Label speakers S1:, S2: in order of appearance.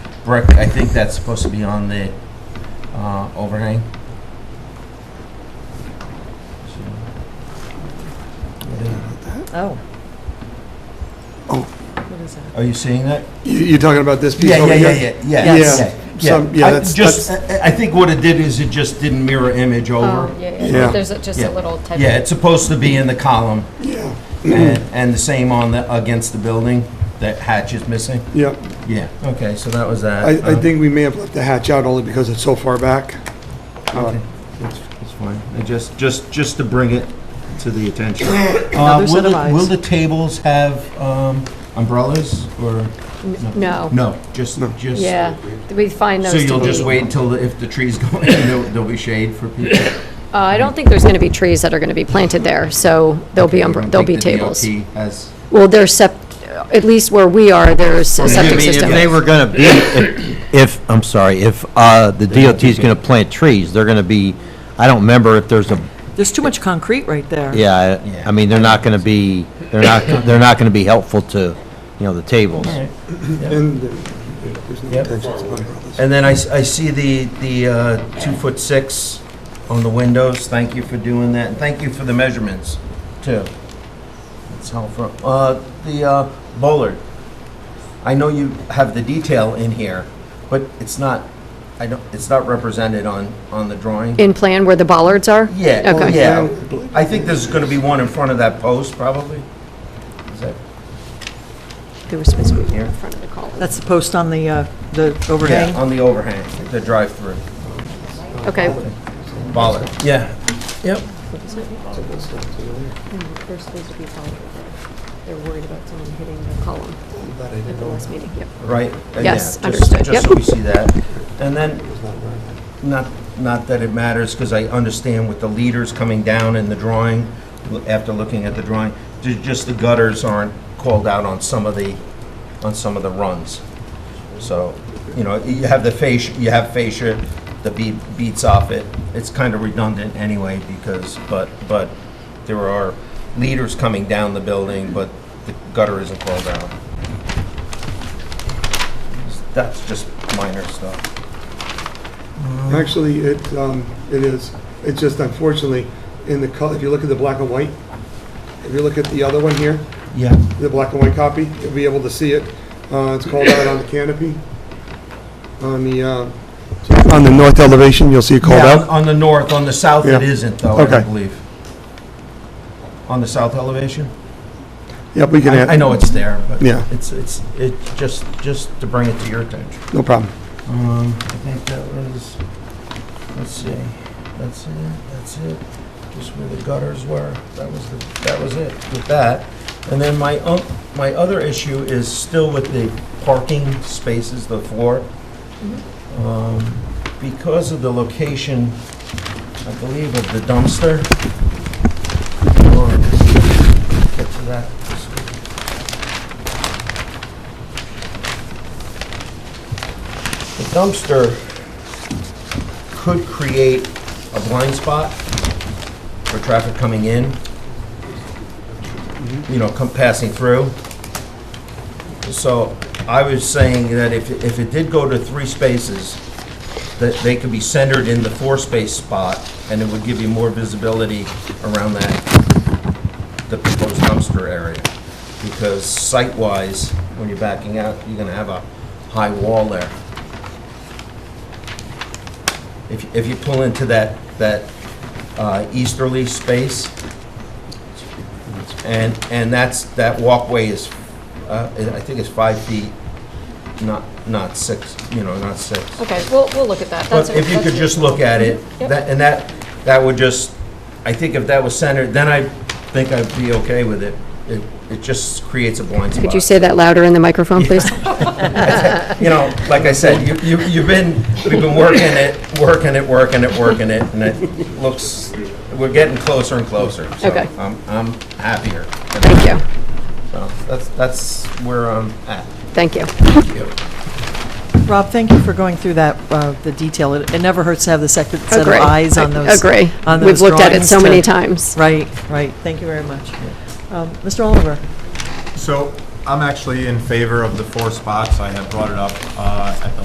S1: brick, I think that's supposed to be on the uh, overhang.
S2: Oh.
S3: Oh.
S2: What is that?
S1: Are you seeing that?
S3: You- You're talking about this piece
S1: Yeah,
S3: over
S1: yeah,
S3: here?
S1: yeah, yeah, yeah.
S2: Yes.
S1: yeah,
S3: Some- yeah,
S1: I
S3: that's-
S1: Just, I I think what it did is it just didn't mirror image
S2: Oh,
S1: over.
S2: yeah,
S3: Yeah.
S2: yeah. There's a- just
S1: Yeah.
S2: a little type.
S1: Yeah, it's supposed to be in the column,
S3: Yeah,
S1: and and the same on the, against the building, that hatch is missing.
S3: yeah.
S1: Yeah, okay, so that was that.
S3: I, I
S1: Uh,
S3: think we may have left the hatch out only because it's so far back. Uh,
S1: Okay, that's, that's fine. I just, just, just to bring it to the attention.
S2: Another
S1: Uh,
S2: set
S1: will
S2: of
S1: the-
S2: eyes.
S1: Will the tables have, um, umbrellas or,
S2: No.
S1: no, just, just?
S2: Yeah, we find those
S1: So
S2: to be.
S1: you'll just wait until, the- if the trees go in, there'll, there'll be shade for people?
S2: Uh, I don't think there's going to be trees that are going to be planted there, so there'll be,
S1: I
S2: umbr-
S1: don't
S2: there'll be
S1: think the
S2: tables.
S1: DOT has-
S2: Well, there's sep, at least where we are, there's a
S4: I
S2: septic
S4: mean, if
S2: system.
S4: they were gonna be, if- if, I'm sorry, if uh, the DOT's gonna plant trees, they're gonna be, I don't remember if there's a,
S5: There's too much concrete right there.
S4: yeah, I- I mean, they're not gonna be, they're not, they're not gonna be helpful to, you know, the tables.
S3: And the- there's no
S1: Yep.
S3: intention to cover all this.
S1: And then I, s- I see the, the, uh, two foot six on the windows. Thank you for doing that. And thank you for the measurements too. It's helpful. Uh, the, uh, bollard. I know you have the detail in here, but it's not, I don't, it's not represented on, on the drawing.
S2: In plan where the bollards are?
S1: Yeah, oh,
S2: Okay.
S1: yeah. I think there's gonna be one in front of that post probably. Is that
S2: They were supposed to be
S1: Here.
S2: in front of the column.
S5: That's the post on the, uh, the
S1: Yeah,
S5: overhang.
S1: on the overhang, the drive-through.
S2: Okay.
S1: Bollard. Yeah. Yep.
S2: They're supposed to be bollards. They're worried about someone hitting the column at the last meeting. Yep.
S1: right? Uh,
S2: Yes,
S1: yeah, just-
S2: understood.
S1: Just so
S2: Yep.
S1: we see that. And then, not, not that it matters, because I understand with the leaders coming down in the drawing, l- after looking at the drawing, ju- just the gutters aren't called out on some of the, on some of the runs. So, you know, you have the fascia, you have fascia, the bead beats off it. It's kind of redundant anyway because, but, but there are leaders coming down the building, but the gutter isn't called out. That's just minor stuff.
S3: Actually, it, um, it is. It's just unfortunately, in the color, if you look at the black and white, if you look at the other one here,
S1: Yeah.
S3: the black and white copy, you'll be able to see it. Uh, it's called out on the canopy. On the, uh, on the north elevation, you'll see it called
S1: Yeah, on-
S3: out.
S1: on the north, on the south it
S3: Yeah.
S1: isn't though, I
S3: Okay.
S1: don't believe. On the south elevation?
S3: Yep, we can add.
S1: I I know it's there, but
S3: Yeah.
S1: it's, it's, it, just, just to bring it to your attention.
S3: No problem.
S1: Um, I think that was, let's see, that's it, that's it, just where the gutters were, that was, the that was it with that. And then my, oth- my other issue is still with the parking spaces, the floor. Um, Because of the location, I believe, of the dumpster. Or, get to that. The dumpster could create a blind spot for traffic coming in, you know, come, passing through. So I was saying that if, if it did go to three spaces, that they could be centered in the four-space spot, and it would give you more visibility around that, the proposed dumpster area. Because site-wise, when you're backing out, you're gonna have a high wall there. If, if you pull into that, that uh, easterly space, and, and that's, that walkway is, uh, I think it's five feet, not, not six, you know, not six.
S2: Okay, we'll, we'll look at that. That's
S1: But
S2: a-
S1: if you could
S2: that's a-
S1: just look at it,
S2: Yep.
S1: that, and that, that would just, I think if that was centered, then I think I'd be okay with it. It, it just creates a blind spot.
S2: Could you say that louder in the microphone, please?
S1: You know, like I said, you, you, you've been, we've been working it, working it, working it, working it, and it looks, we're getting closer and closer. So
S2: Okay.
S1: I'm, I'm happier.
S2: Thank you,
S1: So that's, that's where I'm at.
S2: thank you.
S5: Rob, thank you for going through that, uh, the detail. It it never hurts to have the second set of
S2: Agree.
S5: eyes on
S2: I
S5: those.
S2: Agree.
S5: on
S2: We've
S5: those
S2: looked at it
S5: drawings
S2: so
S5: to-
S2: many times.
S5: Right, right. Thank you very much. Um, Mr. Oliver?
S6: So I'm actually in favor of the four spots. I had brought it up uh, at the